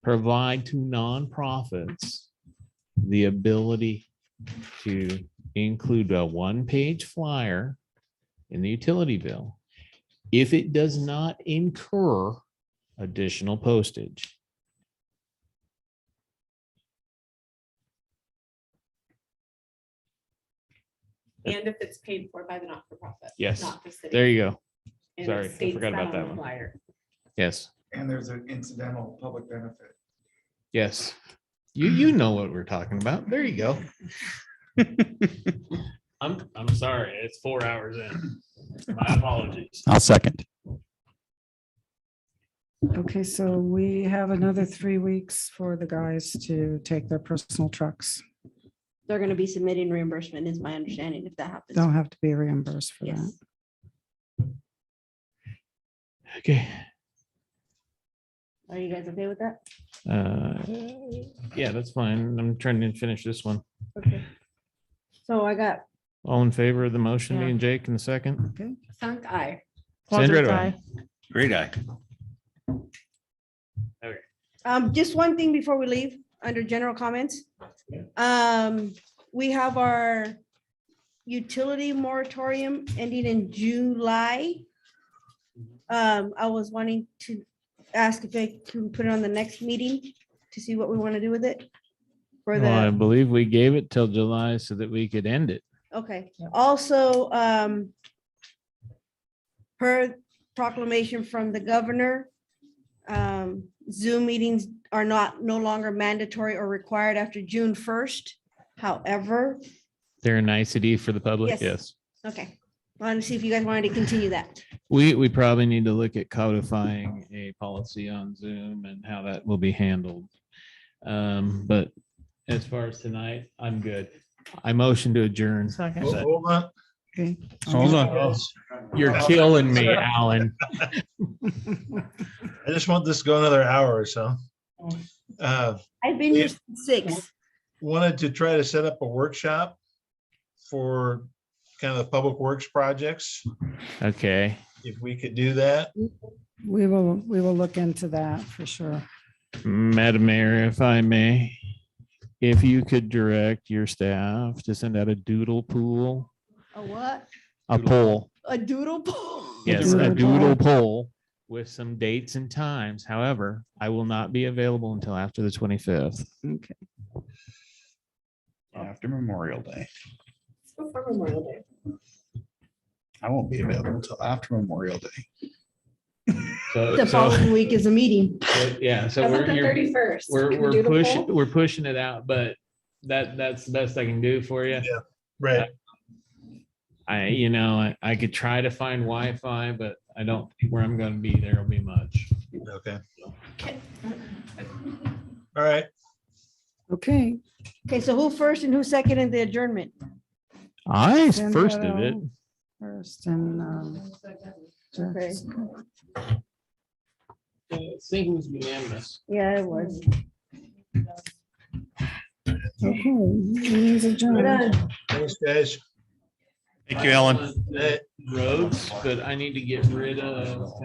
provide to nonprofits the ability to include a one-page flyer in the utility bill if it does not incur additional postage. And if it's paid for by the not-for-profit. Yes. Not the city. There you go. And it sorry, I states forgot about on that the one. flyer. Yes, And there's an incidental public benefit. yes. You, you know what we're talking about. There you go. I'm, I'm sorry, it's four hours in. My apologies. I'll second. Okay, so we have another three weeks for the guys to take their personal trucks. They're gonna be submitting reimbursement is my understanding if that happens. Don't have to be reimbursed for that. Yes. Okay. Are you guys okay with that? Uh, Yeah, that's fine. I'm trying to finish this one. Okay. So I got All in favor of the motion, me Yeah. and Jake in the second? Sunk eye. Sandra, Walter's do I- eye. Great eye. Um, just one thing before we leave, under general comments. Um, we have our utility moratorium ending in July. Um, I was wanting to ask if they can put it on the next meeting to see what we want to do with it. For Well, I the, believe we gave it till July so that we could end it. okay, also, um, per proclamation from the governor, um, Zoom meetings are not, no longer mandatory or required after June first. However, They're a nicety for the public, Yes. yes. okay, I want to see if you guys wanted to continue that. We, we probably need to look at codifying a policy on Zoom and how that will be handled. Um, But as far as tonight, I'm good. I motion to adjourn. Hold- Hold on. Okay. Hold on. You're killing me, Alan. I just want this to go another hour or so. Uh, I've been here Yeah. since six. Wanted to try to set up a workshop for kind of the public works projects, Okay. if we could do that. We will, we will look into that for sure. Madam Mayor, if I may, if you could direct your staff to send out a doodle pool, A what? a poll, A doodle poll? yes, a doodle doodle poll. poll with some dates and times. However, I will not be available until after the 25th. Okay. After Memorial Day. It's before Memorial Day. I won't be available until after Memorial Day. So, The following week is a meeting. yeah, so How about the thirty-first? We're, we're pushing, we're pushing it out, but that, that's the best I can do for you. Right. I, you know, I, I could try to find Wi-Fi, but I don't, think where I'm gonna be, there'll be much. Okay. All right, Okay. Okay, so who first and who second in the adjournment? I Send first that did it. out First and, um, Okay. just- I think it was unanimous. Yeah, it was. okay, meeting's We're adjourned. done. thanks, guys. Thank you, Ellen. Roads, but I need to get rid of